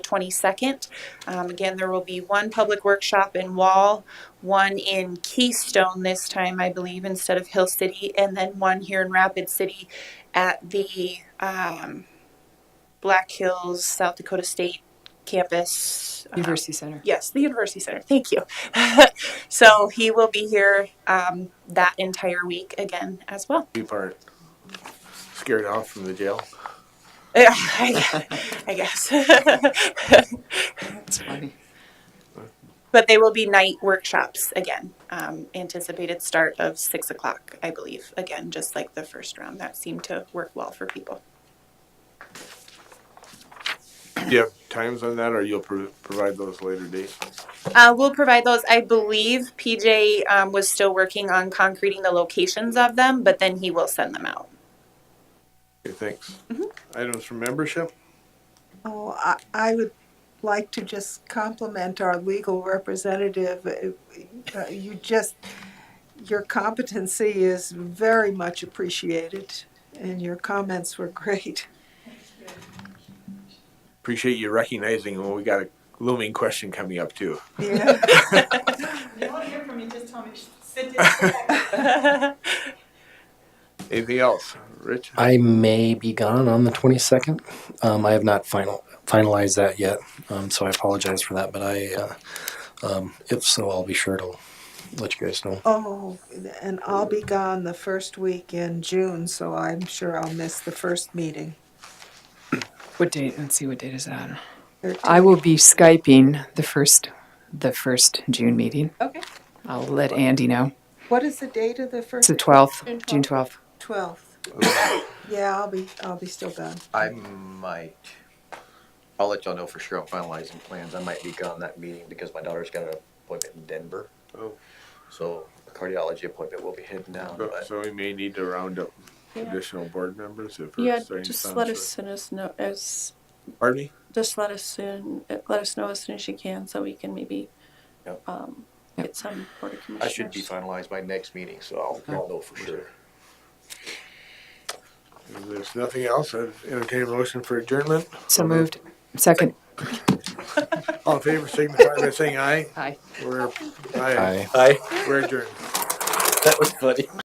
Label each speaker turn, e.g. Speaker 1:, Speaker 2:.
Speaker 1: 22nd. Um, again, there will be one public workshop in Wall, one in Keystone this time, I believe, instead of Hill City, and then one here in Rapid City at the um, Black Hills, South Dakota State campus.
Speaker 2: Uh-huh.
Speaker 1: um,
Speaker 3: University Center.
Speaker 1: Yes, the University Center. Thank you. so he will be here um, that entire week again as well.
Speaker 4: You part scared off from the jail.
Speaker 1: Yeah, I I guess.
Speaker 3: That's funny.
Speaker 1: but they will be night workshops again. Um, anticipated start of six o'clock, I believe. Again, just like the first round, that seemed to work well for people.
Speaker 4: Do you have times on that, or you'll pro- provide those later date?
Speaker 1: Uh, we'll provide those. I believe PJ um, was still working on concreting the locations of them, but then he will send them out.
Speaker 4: Okay, thanks. Items for membership.
Speaker 2: Oh, I, I would like to just compliment our legal representative. Uh, You just, your competency is very much appreciated, and your comments were great.
Speaker 4: Appreciate you recognizing when we got a looming question coming up too.
Speaker 2: Yeah,
Speaker 5: If you want to hear from me, just tell me, sit down.
Speaker 4: Anything else, Rich?
Speaker 6: I may be gone on the 22nd. Um, I have not final finalized that yet, um, so I apologize for that. But I, uh, um, if so, I'll be sure to let you guys know.
Speaker 2: oh, and I'll be gone the first week in June, so I'm sure I'll miss the first meeting.
Speaker 3: What date? Let's see, what date is that? I
Speaker 2: Thirteenth.
Speaker 3: will be Skyping the first, the first June meeting.
Speaker 2: Okay.
Speaker 3: I'll let Andy know.
Speaker 2: What is the date of the
Speaker 3: It's
Speaker 2: first?
Speaker 3: the 12th, June
Speaker 2: June
Speaker 3: 12th.
Speaker 2: Twelfth. Yeah, I'll be, I'll be still gone.
Speaker 7: I might. I'll let y'all know for sure. I'm finalizing plans. I might be gone that meeting because my daughter's got an appointment in Denver.
Speaker 4: Oh.
Speaker 7: So a cardiology appointment will be heading down,
Speaker 4: So-
Speaker 7: but
Speaker 4: So we may need to round up additional board members if we're
Speaker 8: Yeah,
Speaker 4: starting to
Speaker 8: just
Speaker 4: sound
Speaker 8: let
Speaker 4: short.
Speaker 8: us soon as know as
Speaker 4: Pardon me?
Speaker 8: just let us soon let us know as soon as you can so we can maybe
Speaker 7: Yep.
Speaker 8: um,
Speaker 3: Yep.
Speaker 8: get some board of
Speaker 7: I
Speaker 8: commissioners.
Speaker 7: should be finalized by next meeting, so I'll, I'll know for sure.
Speaker 4: If there's nothing else, I'd entertain a motion for adjournment.
Speaker 3: So moved. Second.
Speaker 4: All in favor, signify by saying aye.
Speaker 3: Aye.
Speaker 4: We're,
Speaker 6: Bye.
Speaker 4: aye. We're adjourned.
Speaker 7: That was funny.